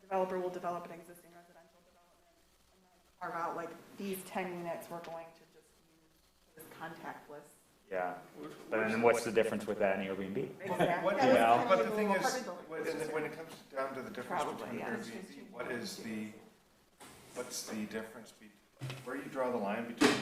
developer will develop an existing residential development and then carve out like these ten units we're going to just use this contact list. Yeah, but then what's the difference with that and Airbnb? Exactly. What- Yeah, it's Yeah. kind of But like the a thing little is, apartment building. when when it comes down to the difference Probably, between yeah. Airbnb, what is the, what's the difference, be- where you draw the line between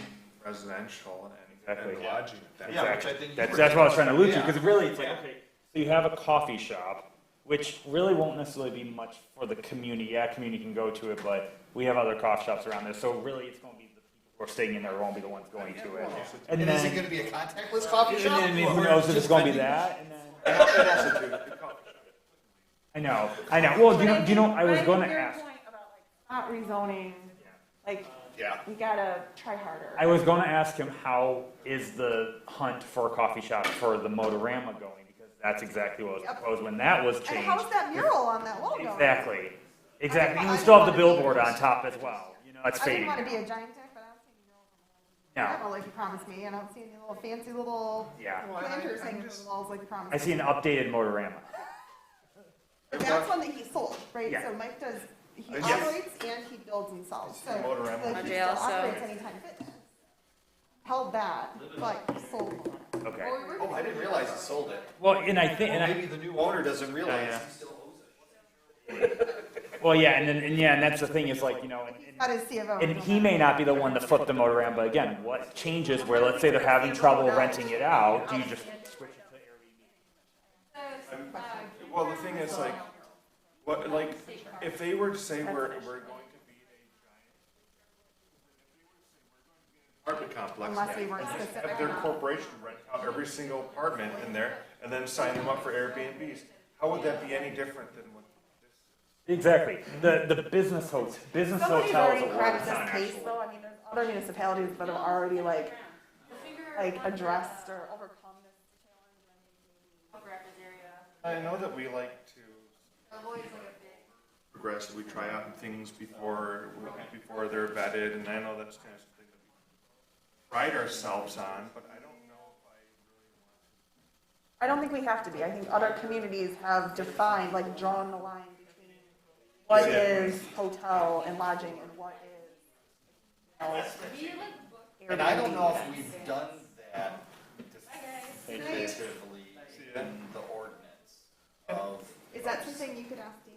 residential and- and Exactly. lodging? at that Yeah, which I Exactly. think you That's, were- that's what I was trying to allude to, Yeah. because really, it's like, Yeah. okay, so you have a coffee shop, which really won't necessarily be much for the community, yeah, community can go to it, but we have other coffee shops around there, so really, it's gonna be the people who are staying in there won't be the ones going to it. And And is it then, going to be a contactless coffee and shop? then Or who knows if it's just gonna be vending- that, and then, point. It also do- I know, I know, well, do you know, do you know, I was But gonna hear your ask, point about, like, Not rezoning, like, Yeah. we gotta try harder. I was gonna ask him, how is the hunt for a coffee shop for the Motorama going? Because that's exactly what was Yep. proposed when that was And changed. how's that mural on that wall going? Exactly, exactly. And I we don't still have wanna the be- billboard on top as well. You know, that's I didn't fading. wanna be a now. giant tech, but I don't see any mural. No, Like you promised me, and I don't see any little fancy little yeah. Well, I- planters I'm hanging on just- the walls like you promised. I see an updated Motorama. But That's one that he sold, right? Yeah. So Mike does, he Yes. operates and he builds and sells, so. It's the Motorama. so he Okay, still also- operates Anytime Fitness. Held that, but sold Motorama. Okay. Oh, I didn't realize he sold it. Well, and I think, and I, Maybe the new owner doesn't realize yeah. he still owes it. well, yeah, and then, and yeah, and that's the thing is like, you know, and, That is CFO. and he may not be the one to flip the Motorama, but again, what changes where, let's say they're having trouble renting it out, do you just switch it to Well, the thing is like, what, like, if they were to say we're, we're going to be a giant. Apartment complex. Unless we weren't and just specific Have their enough. corporation rent out every single apartment in there and then sign them up for Airbnbs. How would that be any different than what? Exactly. The, the business hotels, business Somebody's hotels already are cracked working this case, though, I mean, there's other municipalities that have already like, like addressed or overcome this I know that we like to progress, we try out things before, before they're vetted, and I know that's kind of something that we pride ourselves on, but I don't know if I. I don't think we have to be. I think other communities have defined, like drawn the line between what Yeah. is hotel and lodging and what is. And I don't know if we've done that definitively ya. in the ordinance of. Is that something you could ask Dan?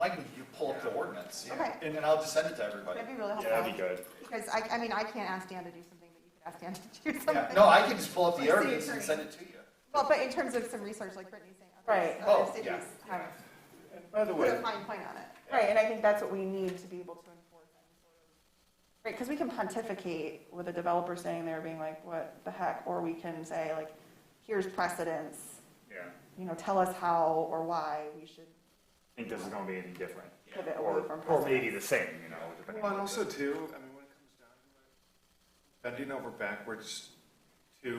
Like, you pull up the ordinance, yeah. Okay. and then I'll just send it to everybody. That'd be really Yeah, that'd be helpful. good. Because I, I mean, I can't ask Dan to do something, but you could ask Dan to do Yeah, something. no, I can just pull up the Like, city ordinance and attorney. send it to you. Well, but in terms of some research, like Brittany's saying, other- Right. other Oh, cities yeah. have And by the put a way, fine point on it. Right, and I think that's what we need to be able to enforce. any sort of- Right, because we can pontificate with a developer saying there, being like, what the heck, or we can say like, here's precedence, Yeah. you know, tell us how or why we should I think this is gonna be any different. pivot away Or, from or precedent. maybe the same, you know, depending well, on. and what also the- too, I mean, when it comes down to it, bending over backwards to,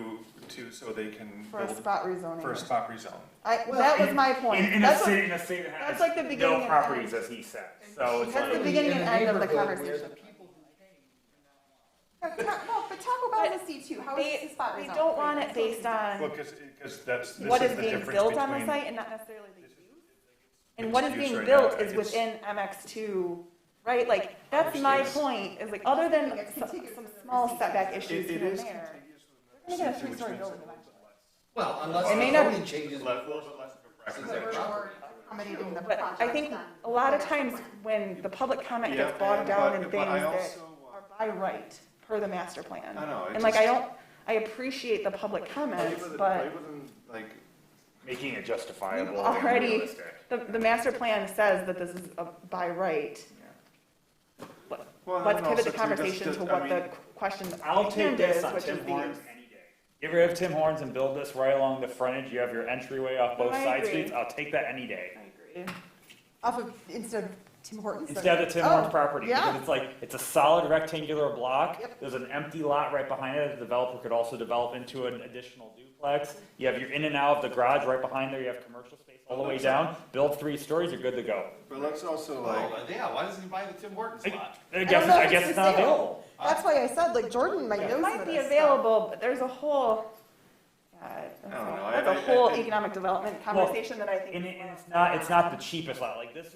to, so they can For a build- spot For a rezoning. spot rezone. I, that was my In, point. in a That's what, city, in a city that has that's like the beginning no and properties, end. as he said, so it's That's the like, beginning In and end of the neighborhood where conversation. the people who came no, but Taco Bell is a C two, how is They, the spot they rezoned? don't want it based Well, on because, that's, this what is is the being difference built on the between- site and not necessarily the use. And what is Mixed use being right now, built I is guess. within MX two, right? Like, that's my point, is like, other than It's s- contiguous. some small setback It- issues it here and is there. contiguous They're gonna get a with three-story which building makes it Well, unless It may the not- zoning changes. a little bit less of a Since preference. they're property. Accommodating the But project. I think then. a lot of times when the public comment Yeah, gets bogged and- down but- in things but I that also, uh, are by right per the master plan. I know, it And like, I just- don't, I appreciate the public Play comments, with it- play but with them, Like, making it justifiable and already, realistic. the, the master plan says that this is a by right. Let- Well, and then Let's pivot also the too, just- conversation just- to I what the mean- question I'll at take hand this is, on which is Tim the Horns any day. Get rid of Tim Horns and build this right along the frontage, you have your entryway off both I side agree. streets, I'll take that any day. use. Off of, instead of Tim Hortons. so- Instead of Tim Oh, Horns property, because Yeah, it's like, it's a solid rectangular block, Yep. there's an empty lot right behind it, the developer could also develop into an additional duplex. You have your in and out of the garage right behind there, you have commercial space all the way down, build three stories, you're good to go. but let's also like, Well, yeah, why doesn't he buy the Tim Hortons lot? I don't guess, know if I it's guess for it's not sale. available. that's why I said, like, Jordan might know It some might of be this stuff. available, but there's a whole, yeah, I don't know, that's I- a I- whole I- economic development conversation that I think. And, it, and it's not, it's not the cheapest lot, like this